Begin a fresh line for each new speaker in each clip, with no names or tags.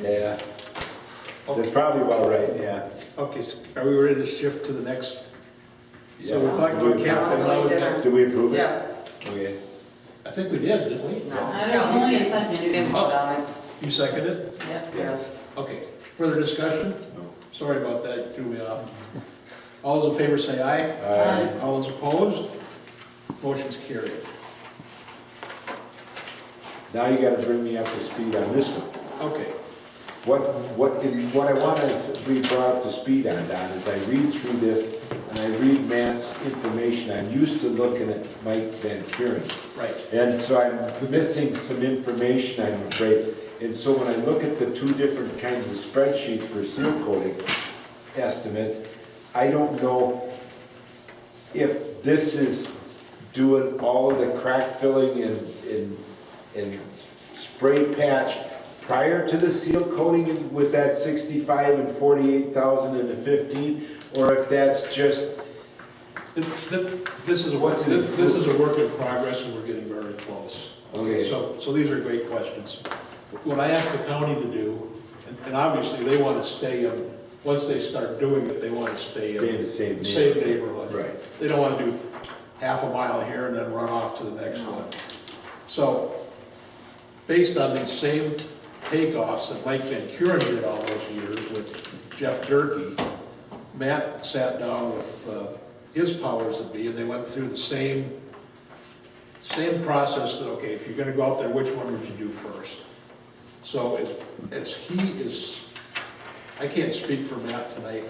Yeah. That's probably about right, yeah.
Okay, so are we ready to shift to the next? So we're
Yeah.
talking
Do we
about
approve-
capital
Yeah.
outtake.
Do we approve it?
Yes.
Okay.
I think we did, didn't we?
I don't know, you said you didn't vote on it.
You seconded?
Yep.
Yes.
Okay, further discussion?
No.
Sorry about that, you threw me off. All those in favor say aye.
Aye.
All those opposed? Motion's carried.
Now you gotta bring me up to speed on this one.
Okay,
What, what, is- what I want to be brought up to speed on, Don, is I read through this and I read Matt's information, I'm used to looking at Mike Van Kuren.
right.
And so I'm missing some information, I'm afraid. And so when I look at the two different kinds of spreadsheets for seal coating estimates, I don't know if this is doing all of the crack filling and, and, and spray patch prior to the seal coating with that sixty-five and forty-eight thousand and the fifteen, or if that's just,
Th- th- This is, a work-
What's in
th-
it?
this is a work in progress, and we're getting very close.
Okay.
So, so these are great questions. What I asked the county to do, and- and obviously, they want to stay, um, once they start doing it, they want to stay. um,
Stay in the same
the
neighborhood.
neighborhood.
Right.
They don't want to do half a mile here and then run off to the next one. So, based on these same takeoffs that Mike Van Kuren did all those years with Jeff Durkey, Matt sat down with uh, his powers that be, and they went through the same, same process that, okay, if you're gonna go out there, which one would you do first? So as, as he is, I can't speak for Matt tonight,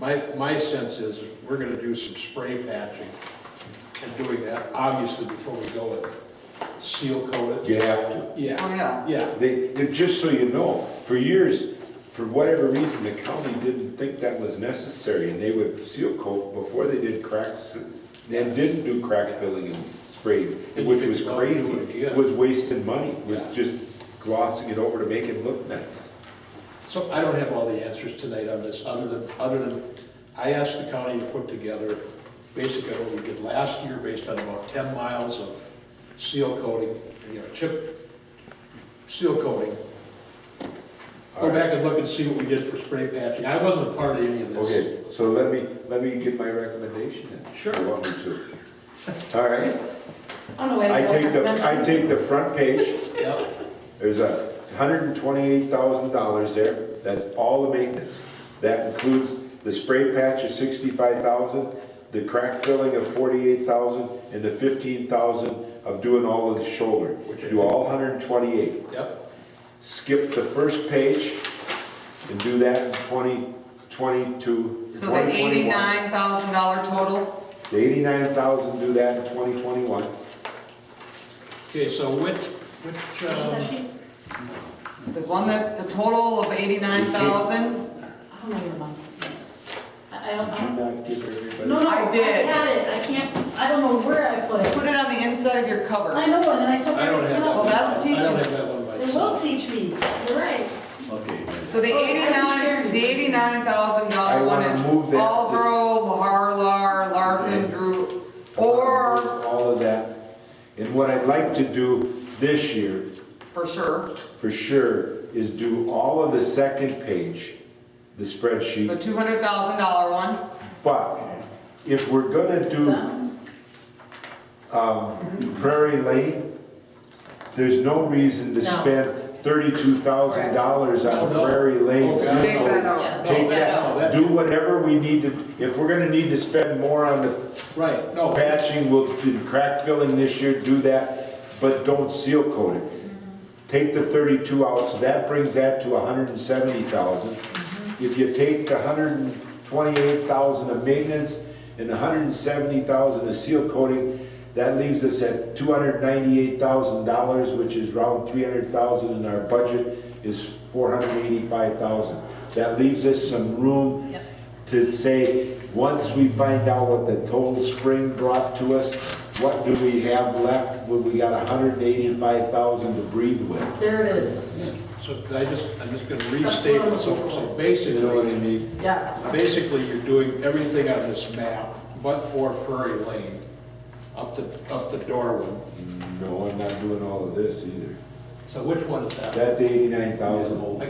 my, my sense is, we're gonna do some spray patching and doing that, obviously, before we go and seal coat it.
you have to.
Yeah.
Oh, yeah.
Yeah,
They, they- just so you know, for years, for whatever reason, the county didn't think that was necessary, and they would seal coat before they did cracks, and didn't do crack filling and spray,
And
which
you
was
think, well, you
crazy,
would, yeah.
was wasting money, was
Yeah.
just glossing it over to make it look nice.
so I don't have all the answers tonight on this, other than, other than, I asked the county to put together basically what we did last year, based on about ten miles of seal coating, you know, chip, seal coating. Go
Alright.
back and look and see what we did for spray patching, I wasn't a part of any of this.
Okay, so let me, let me give my recommendation then.
Sure.
You want me to? All right,
On the way to.
I
Bill
take the, I
Clinton.
take the front page,
Yep.
There's a hundred and twenty-eight thousand dollars there, that's all the maintenance. That includes the spray patch of sixty-five thousand, the crack filling of forty-eight thousand, and the fifteen thousand of doing all of the shoulder. Do all hundred and twenty-eight.
Yep,
Skip the first page and do that in twenty, twenty-two,
So the
twenty twenty-one.
eighty-nine thousand dollar total?
The eighty-nine thousand, do that in twenty twenty-one.
okay, so which, which, um,
The one that, the total of eighty-nine thousand?
I don't know your mom. I I don't,
Did you
I
not give
don't. No,
everybody?
no,
I
I
did.
had it, I can't, I don't know where I put it.
Put it on the inside of your
I
cover.
know, and then I took
I don't have that.
everything
Well,
out.
that'll teach
I don't
you.
have that one
It will
myself.
teach me, you're right.
So the
Oh, I didn't share
eighty-nine,
it.
the eighty-nine thousand
I
dollar one
wanna
is
move that to-
Aldro, Harlar, Larson, Drew, or,
All of that. And what I'd like to do this year,
for sure,
for sure, is do all of the second page, the
the
spreadsheet.
two hundred thousand dollar one.
But if we're gonna do um, Prairie Lane, there's no reason to
No.
spend thirty-two thousand dollars
No,
on
no.
Prairie Lane.
Oh, God,
Take
no.
that
Yeah.
out.
Take
No,
that,
that-
do whatever we need to, if we're gonna need to spend more on the
Right, no,
Patching will, do crack filling this year, do that, but don't seal coat it. Take the thirty-two out, so that brings that to hundred and seventy thousand. If you take the hundred and twenty-eight thousand of maintenance and the hundred and seventy thousand of seal coating, that leaves us at two hundred ninety-eight thousand dollars, which is around three hundred thousand, and our budget is four hundred eighty-five thousand. That leaves us some room to say, once we find out what the total spring brought to us, what do we have left when we got hundred and eighty-five thousand to breathe with?
There it is,
so I just, I'm just gonna restate it, so, so basically.
You know what I mean?
yeah.
Basically, you're doing everything on this map, but for Prairie Lane, up to, up to Darwin.
No, I'm not doing all of this either.
So which one is that?
That's eighty-nine thousand.
I